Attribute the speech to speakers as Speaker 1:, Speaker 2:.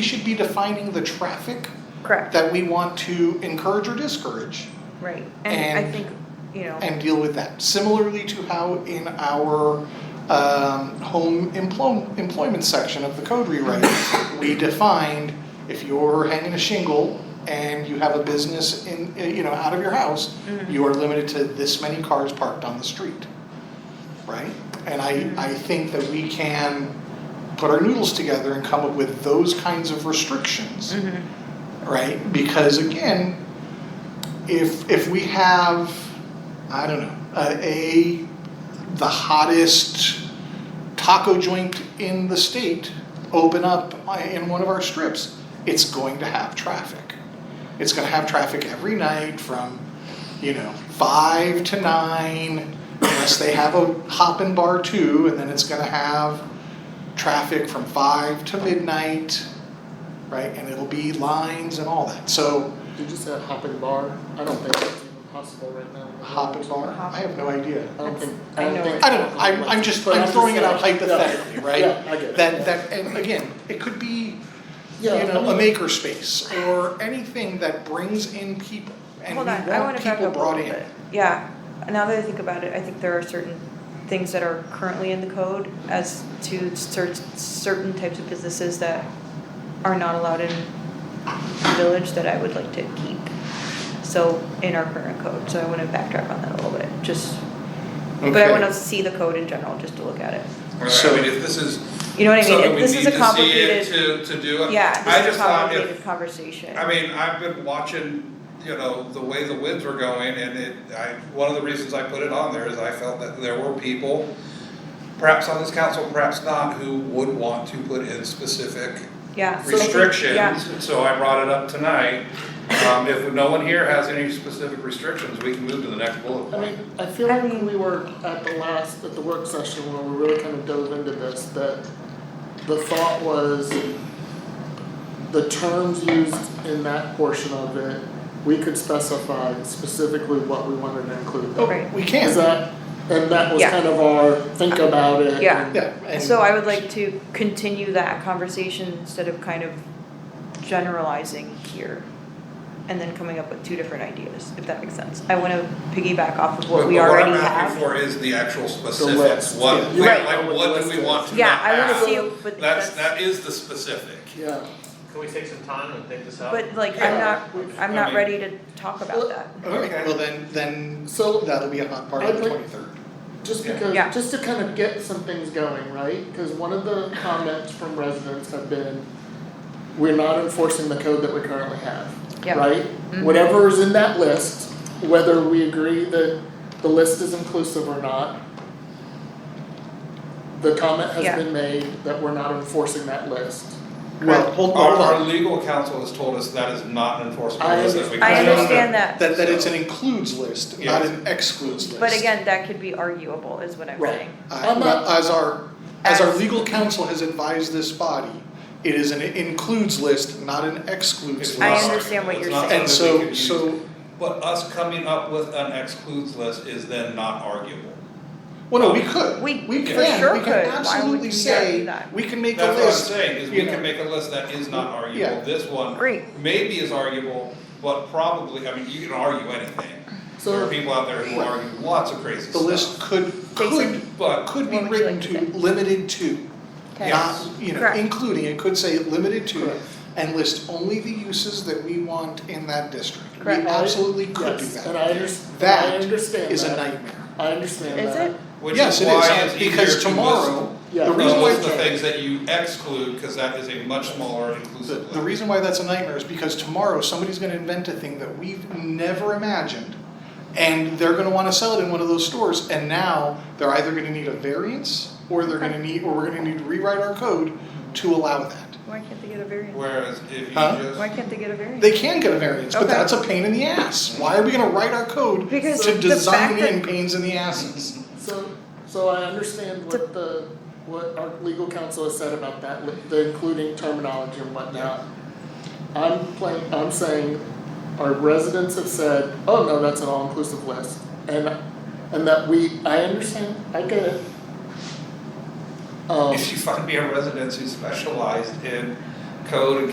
Speaker 1: We should be defining the traffic
Speaker 2: Correct,
Speaker 1: that we want to encourage or discourage
Speaker 2: right, and I
Speaker 1: And-
Speaker 2: think, you know,
Speaker 1: and deal with that. Similarly to how in our um, home emplo- employment section of the code rewrite, we defined if you're hanging a shingle and you have a business in, eh, you know, out of your house, you are limited to this many cars parked on the street, right? And I, I think that we can put our noodles together and come up with those kinds of restrictions
Speaker 2: Mhm.
Speaker 1: right? Because again, if if we have, I don't know, a, a the hottest taco joint in the state open up in one of our strips, it's going to have traffic. It's going to have traffic every night from, you know, five to nine, unless they have a hop and bar too, and then it's going to have traffic from five to midnight right? And it'll be lines and all that. So
Speaker 3: Did you say a hopping bar? I don't think that's even possible right now.
Speaker 1: hop and bar, I have no idea.
Speaker 3: I don't think,
Speaker 2: I
Speaker 3: I
Speaker 2: know
Speaker 3: don't think.
Speaker 2: it.
Speaker 1: I don't know. I'm, I'm just
Speaker 3: But
Speaker 1: I'm throwing it out
Speaker 3: saying, yeah.
Speaker 1: hypothetically, right?
Speaker 3: Yeah, I get it.
Speaker 1: That that and again, it could be you
Speaker 3: Yeah, I
Speaker 1: know a
Speaker 3: mean-
Speaker 1: maker space or anything that brings in people and
Speaker 2: hold
Speaker 1: we
Speaker 2: on, I
Speaker 1: want
Speaker 2: wanna back
Speaker 1: people
Speaker 2: up a
Speaker 1: brought
Speaker 2: little
Speaker 1: in.
Speaker 2: bit. Yeah, now that I think about it, I think there are certain things that are currently in the code as to cer- certain types of businesses that are not allowed in the village that I would like to keep. So, in our current code, so I wanna backtrack on that a little bit, just, but I
Speaker 1: Okay.
Speaker 2: wanna see the code in general, just to look at it.
Speaker 1: So-
Speaker 4: Right, I mean, if this is
Speaker 2: You know what I mean?
Speaker 4: something
Speaker 2: It-
Speaker 4: we
Speaker 2: This
Speaker 4: need
Speaker 2: is a
Speaker 4: to see it
Speaker 2: complicated,
Speaker 4: to, to do,
Speaker 2: yeah,
Speaker 4: I
Speaker 2: this is
Speaker 4: just
Speaker 2: a
Speaker 4: thought if,
Speaker 2: complicated conversation.
Speaker 4: I mean, I've been watching, you know, the way the winds were going and it, I, one of the reasons I put it on there is I felt that there were people, perhaps on this council, perhaps not, who would want to put in specific
Speaker 2: Yeah. so I think- yeah.
Speaker 4: restrictions, so I brought it up tonight. Um, if no one here has any specific restrictions, we can move to the next bullet
Speaker 3: I
Speaker 4: point.
Speaker 3: mean, I feel
Speaker 2: I
Speaker 3: like
Speaker 2: mean-
Speaker 3: we were at the last, at the work session where we really kind of dove into this, that the thought was the terms used in that portion of it, we could specify specifically what we wanted to include.
Speaker 1: Oh,
Speaker 2: Right.
Speaker 1: We
Speaker 3: Is
Speaker 1: can,
Speaker 3: that, and that was
Speaker 2: Yeah.
Speaker 3: kind of our think about it
Speaker 2: Yeah.
Speaker 3: and-
Speaker 1: yeah. and-
Speaker 2: So I would like to continue that conversation instead of kind of generalizing here. And then coming up with two different ideas, if that makes sense. I wanna piggyback off of what
Speaker 4: But-
Speaker 2: we
Speaker 4: but
Speaker 2: already
Speaker 4: What I'm asking
Speaker 2: have.
Speaker 4: for is the actual specifics,
Speaker 3: list,
Speaker 4: what,
Speaker 3: yeah.
Speaker 4: we-
Speaker 2: Right.
Speaker 4: like, what do we want to not
Speaker 2: Yeah, I wanna
Speaker 4: have?
Speaker 2: see, but
Speaker 4: That's,
Speaker 2: that's,
Speaker 4: that is the specific.
Speaker 3: Yeah,
Speaker 5: Can we take some time and think this out?
Speaker 2: but like, I'm
Speaker 3: Yeah.
Speaker 2: not, I'm not ready to talk about that.
Speaker 1: Okay, well then then
Speaker 3: so
Speaker 1: that'll be a hot part of the
Speaker 3: I'd like-
Speaker 1: twenty third.
Speaker 3: just
Speaker 4: Yeah.
Speaker 3: because,
Speaker 2: Yeah.
Speaker 3: just to kind of get some things going, right? Because one of the comments from residents have been, we're not enforcing the code that we currently have,
Speaker 2: Yeah.
Speaker 3: right?
Speaker 2: Mhm.
Speaker 3: Whatever is in that list, whether we agree that the list is inclusive or not, the comment
Speaker 2: Yeah.
Speaker 3: has been made that we're not enforcing that list.
Speaker 1: Well, hold
Speaker 4: Our,
Speaker 1: hold
Speaker 4: our
Speaker 1: on,
Speaker 4: legal counsel has told us that is not an enforceable
Speaker 3: I
Speaker 4: list that we
Speaker 2: I
Speaker 4: can-
Speaker 2: understand that,
Speaker 1: that that it's an includes list, not an excludes list.
Speaker 2: but again, that could be arguable is what I'm
Speaker 3: Right.
Speaker 2: saying.
Speaker 1: Uh,
Speaker 3: I'm
Speaker 1: well,
Speaker 3: not-
Speaker 1: as our, as our
Speaker 2: As-
Speaker 1: legal counsel has advised this body, it is an includes list, not an excludes
Speaker 4: It's
Speaker 1: list.
Speaker 2: I
Speaker 4: not
Speaker 2: understand
Speaker 4: arguable.
Speaker 2: what
Speaker 4: It's
Speaker 2: you're
Speaker 4: not
Speaker 2: saying.
Speaker 1: And
Speaker 4: something we
Speaker 1: so, so,
Speaker 4: can use. But us coming up with an excludes list is then not arguable.
Speaker 1: well, no, we could,
Speaker 2: We-
Speaker 1: we
Speaker 2: for
Speaker 1: can,
Speaker 2: sure
Speaker 1: we
Speaker 2: could. Why
Speaker 1: can
Speaker 2: would
Speaker 1: absolutely
Speaker 2: we not do
Speaker 1: say,
Speaker 2: that?
Speaker 1: we can make a
Speaker 4: That's what I'm
Speaker 1: list.
Speaker 4: saying, is we
Speaker 1: you know.
Speaker 4: can make a list that is not
Speaker 1: Yeah.
Speaker 4: arguable, this one
Speaker 2: Great.
Speaker 4: maybe is arguable, but probably, I mean, you can argue anything. There are
Speaker 3: So,
Speaker 4: people out there who
Speaker 1: Right.
Speaker 4: argue lots of crazy stuff.
Speaker 1: The list could, could,
Speaker 2: Jason?
Speaker 4: But
Speaker 1: could be
Speaker 2: What would you
Speaker 1: written to,
Speaker 2: like to say?
Speaker 1: limited to,
Speaker 2: Okay.
Speaker 1: not, you know,
Speaker 2: Correct.
Speaker 1: including, it could say limited to,
Speaker 3: Correct.
Speaker 1: and list only the uses that we want in that district.
Speaker 2: Correct.
Speaker 1: We absolutely could do
Speaker 3: yes,
Speaker 1: that.
Speaker 3: and I understand, I
Speaker 1: That
Speaker 3: understand
Speaker 1: is a
Speaker 3: that.
Speaker 1: nightmare.
Speaker 3: I understand
Speaker 2: Is
Speaker 3: that.
Speaker 2: it?
Speaker 4: Which
Speaker 1: yes,
Speaker 4: is
Speaker 1: it
Speaker 4: why
Speaker 1: is
Speaker 4: it's easier
Speaker 1: because
Speaker 4: to list
Speaker 1: tomorrow,
Speaker 3: Yeah.
Speaker 1: the
Speaker 4: the
Speaker 1: reason
Speaker 4: list
Speaker 1: why
Speaker 4: of things that you exclude, cause that is a much smaller
Speaker 1: the,
Speaker 4: inclusive list.
Speaker 1: the reason why that's a nightmare is because tomorrow somebody's going to invent a thing that we've never imagined, and they're going to want to sell it in one of those stores. And now they're either going to need a variance, or they're going to need, or we're going to need to rewrite our code to allow that.
Speaker 2: Why can't they get a variance?
Speaker 4: Whereas if you
Speaker 1: Huh?
Speaker 4: just.
Speaker 2: Why can't they get a variance?
Speaker 1: They can get a variance, but
Speaker 2: Okay.
Speaker 1: that's a pain in the ass. Why are we going to write our code
Speaker 2: Because
Speaker 1: to
Speaker 2: the
Speaker 1: design
Speaker 2: fact that-
Speaker 1: in pains in the asses?
Speaker 3: So, so I understand what the, what our legal counsel has said about that, li- the including terminology and whatnot. I'm playing, I'm saying, our residents have said, oh no, that's an all-inclusive list, and, and that we, I understand, I get it. Um,
Speaker 4: If you find me a residence who specialized in code and